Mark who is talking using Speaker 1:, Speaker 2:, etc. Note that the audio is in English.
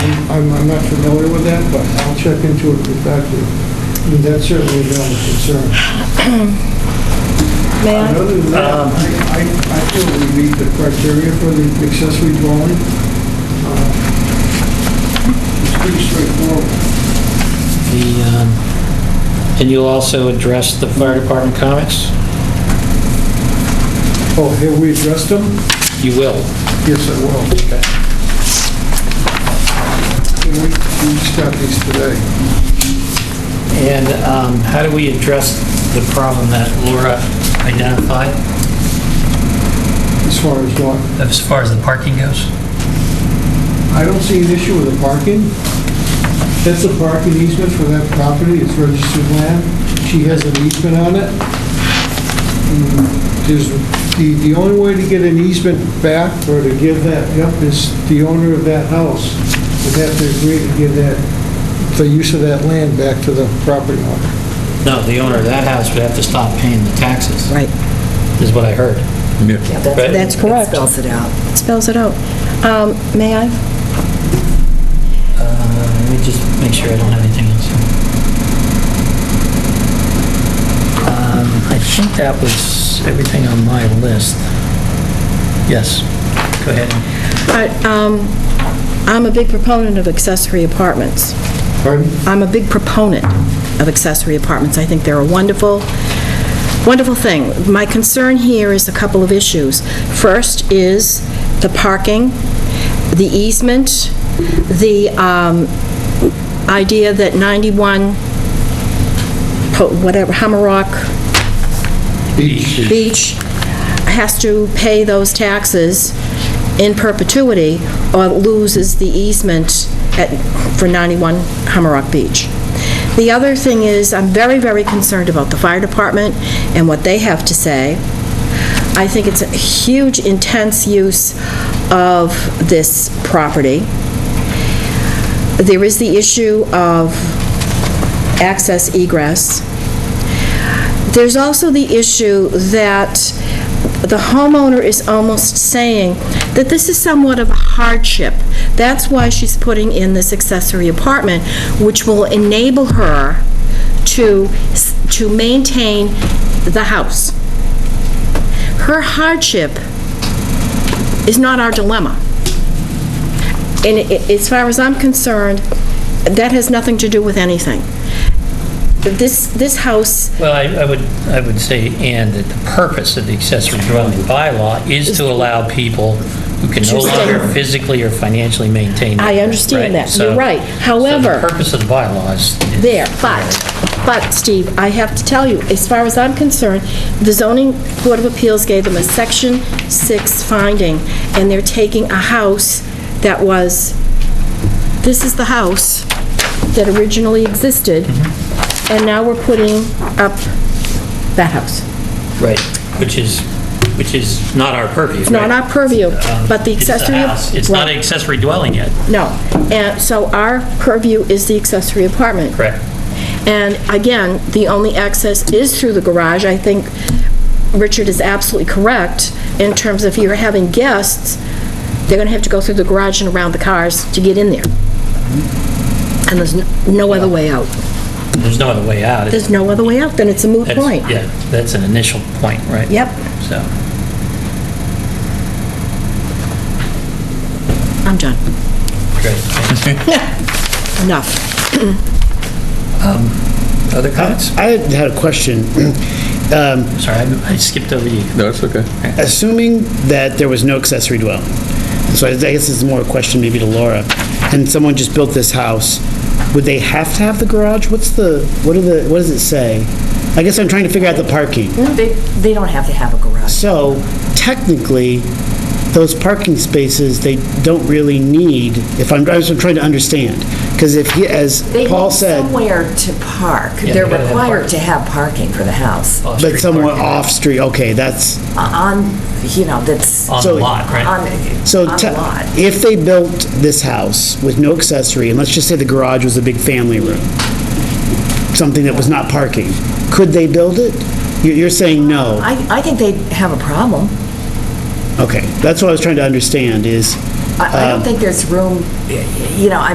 Speaker 1: I'm, I'm not familiar with that, but I'll check into it and get back to you. I mean, That's certainly a valid concern.
Speaker 2: May I?
Speaker 1: Other than that, I, I I feel we meet the criteria for the accessory dwelling. Uh, It's pretty straightforward.
Speaker 3: The, um, and you'll also address the fire department comments?
Speaker 1: Oh, have we addressed them?
Speaker 3: You will.
Speaker 1: Yes, I will.
Speaker 3: Okay.
Speaker 1: And we, we start these today.
Speaker 3: And um, how do we address the problem that Laura identified
Speaker 1: As far as what,
Speaker 3: as far as the parking goes?
Speaker 1: I don't see an issue with the parking. That's a parking easement for that property, it's registered land. She has an easement on it. Mm, There's, the, the only way to get an easement back or to give that up is the owner of that house would have to agree to give that, the use of that land back to the property owner.
Speaker 3: No, the owner of that house would have to stop paying the taxes,
Speaker 4: Right.
Speaker 3: is what I heard.
Speaker 4: Yeah,
Speaker 3: Right.
Speaker 4: that's- that's
Speaker 2: Correct.
Speaker 4: correct. Spells it out.
Speaker 2: Spells it out. Um, May I?
Speaker 3: Uh, Let me just make sure I don't have anything else. Um, I think that was everything on my list. Yes, go ahead.
Speaker 2: I- um, I'm a big proponent of accessory apartments.
Speaker 1: Pardon?
Speaker 2: I'm a big proponent of accessory apartments. I think they're a wonderful, wonderful thing. My concern here is a couple of issues. First is the parking, the easement, the um, idea that 91, po- whatever, Hammerock Beach has to pay those taxes in perpetuity or loses the easement at, for 91 Hammerock Beach. The other thing is, I'm very, very concerned about the fire department and what they have to say. I think it's a huge, intense use of this property. There is the issue of access egress. There's also the issue that the homeowner is almost saying that this is somewhat of a hardship. That's why she's putting in this accessory apartment, which will enable her to, to maintain the house. Her hardship is not our dilemma. And i- as far as I'm concerned, that has nothing to do with anything. This, this house
Speaker 3: Well, I I would, I would say, and that the purpose of the accessory dwelling bylaw is to allow people who can no
Speaker 2: To stay.
Speaker 3: longer physically or financially maintain.
Speaker 2: I
Speaker 3: their-
Speaker 2: understand that. You're
Speaker 3: So-
Speaker 2: right.
Speaker 3: so
Speaker 2: However-
Speaker 3: the purpose of the bylaw is... is-
Speaker 2: there, but, but Steve, I have to tell you, as far as I'm concerned, the zoning board of appeals gave them a section six finding, and they're taking a house that was, this is the house that originally existed,
Speaker 3: Mm-hmm.
Speaker 2: and now we're putting up that house.
Speaker 3: Right, which is, which is not our purview. Um,
Speaker 2: It's not our purview, but the accessory...
Speaker 3: uh, It's the house. It's not an accessory dwelling yet.
Speaker 2: No, and so our purview is the accessory apartment.
Speaker 3: Correct.
Speaker 2: And again, the only access is through the garage. I think Richard is absolutely correct in terms of if you're having guests, they're going to have to go through the garage and around the cars to get in there. And there's no- no other way out.
Speaker 3: There's no other way out.
Speaker 2: There's no other way out, then it's a moot
Speaker 3: That's-
Speaker 2: point.
Speaker 3: Yeah, that's an initial point, right?
Speaker 2: Yep.
Speaker 3: So,
Speaker 2: I'm done.
Speaker 3: great. Thanks.
Speaker 2: Enough.
Speaker 3: Um, Other comments?
Speaker 5: I had a question. Um,
Speaker 3: Sorry, I I skipped over you.
Speaker 6: No, it's okay.
Speaker 5: Assuming that there was no accessory dwelling, so I guess this is more a question maybe to Laura, and someone just built this house, would they have to have the garage? What's the, what are the, what does it say? I guess I'm trying to figure out the parking.
Speaker 4: They, they don't have to have a garage.
Speaker 5: So technically, those parking spaces, they don't really need, if I'm, I was trying to understand, because if, he- as
Speaker 4: They
Speaker 5: Paul
Speaker 4: need
Speaker 5: said,
Speaker 4: somewhere to park.
Speaker 3: Yeah,
Speaker 4: They're
Speaker 3: they gotta have
Speaker 4: required
Speaker 3: parking. Oh.
Speaker 4: to have parking for the house.
Speaker 5: but somewhere off-street, okay, that's,
Speaker 4: On, you know, that's.
Speaker 3: On the
Speaker 5: so-
Speaker 3: lot, right?
Speaker 4: On,
Speaker 5: So
Speaker 4: on
Speaker 5: te-
Speaker 4: the lot.
Speaker 5: if they built this house with no accessory, and let's just say the garage was a big family room, something that was not parking, could they build it? You- You're saying no.
Speaker 4: I, I think they have a problem.
Speaker 5: Okay, that's what I was trying to understand is...
Speaker 4: I, I
Speaker 5: Um,
Speaker 4: don't think there's room, you know, I